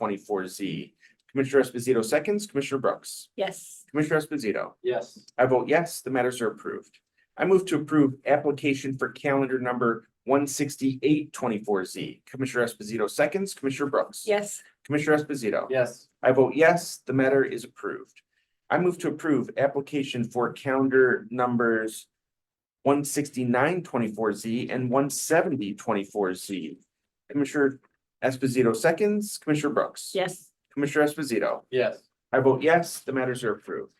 twenty-four Z. Commissioner Esposito seconds, Commissioner Brooks. Yes. Commissioner Esposito. Yes. I vote yes, the matters are approved. I move to approve application for calendar number one sixty-eight twenty-four Z. Commissioner Esposito seconds, Commissioner Brooks. Yes. Commissioner Esposito. Yes. I vote yes, the matter is approved. I move to approve application for calendar numbers one sixty-nine twenty-four Z and one seventy twenty-four Z. Commissioner Esposito seconds, Commissioner Brooks. Yes. Commissioner Esposito. Yes. I vote yes, the matters are approved.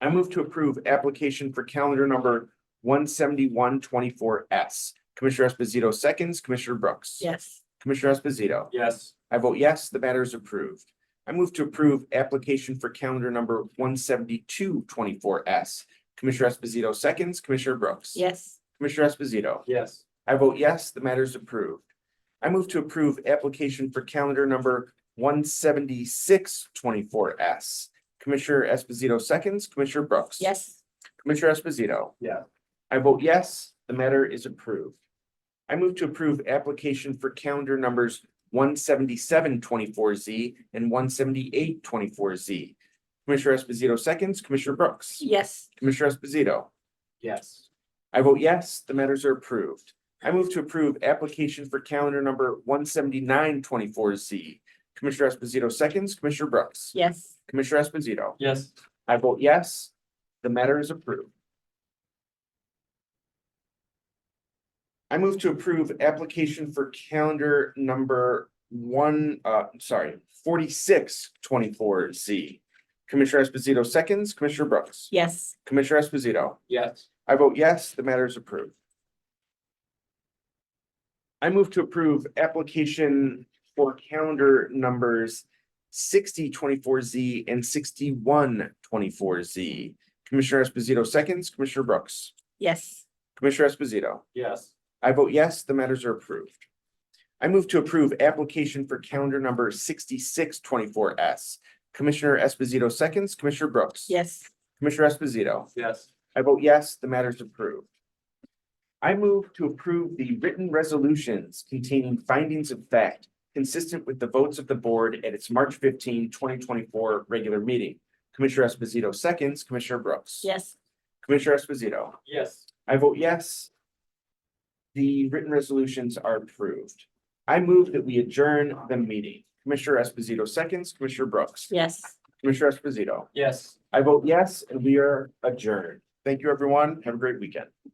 I move to approve application for calendar number one seventy-one twenty-four S. Commissioner Esposito seconds, Commissioner Brooks. Yes. Commissioner Esposito. Yes. I vote yes, the matter is approved. I move to approve application for calendar number one seventy-two twenty-four S. Commissioner Esposito seconds, Commissioner Brooks. Yes. Commissioner Esposito. Yes. I vote yes, the matter is approved. I move to approve application for calendar number one seventy-six twenty-four S. Commissioner Esposito seconds, Commissioner Brooks. Yes. Commissioner Esposito. Yeah. I vote yes, the matter is approved. I move to approve application for calendar numbers one seventy-seven twenty-four Z and one seventy-eight twenty-four Z. Commissioner Esposito seconds, Commissioner Brooks. Yes. Commissioner Esposito. Yes. I vote yes, the matters are approved. I move to approve application for calendar number one seventy-nine twenty-four Z. Commissioner Esposito seconds, Commissioner Brooks. Yes. Commissioner Esposito. Yes. I vote yes, the matter is approved. I move to approve application for calendar number one, uh, sorry, forty-six twenty-four Z. Commissioner Esposito seconds, Commissioner Brooks. Yes. Commissioner Esposito. Yes. I vote yes, the matter is approved. I move to approve application for calendar numbers sixty twenty-four Z and sixty-one twenty-four Z. Commissioner Esposito seconds, Commissioner Brooks, Yes. Commissioner Esposito. Yes. I vote yes, the matters are approved. I move to approve application for calendar number sixty-six twenty-four S. Commissioner Esposito seconds, Commissioner Brooks. Yes. Commissioner Esposito. Yes. I vote yes, the matter is approved. I move to approve the written resolutions containing findings of fact consistent with the votes of the board at its March 15, 2024 regular meeting. Commissioner Esposito seconds, Commissioner Brooks. Yes. Commissioner Esposito. Yes. I vote yes. The written resolutions are approved. I move that we adjourn the meeting. Commissioner Esposito seconds, Commissioner Brooks. Yes. Commissioner Esposito. Yes. I vote yes, and we are adjourned. Thank you, everyone. Have a great weekend.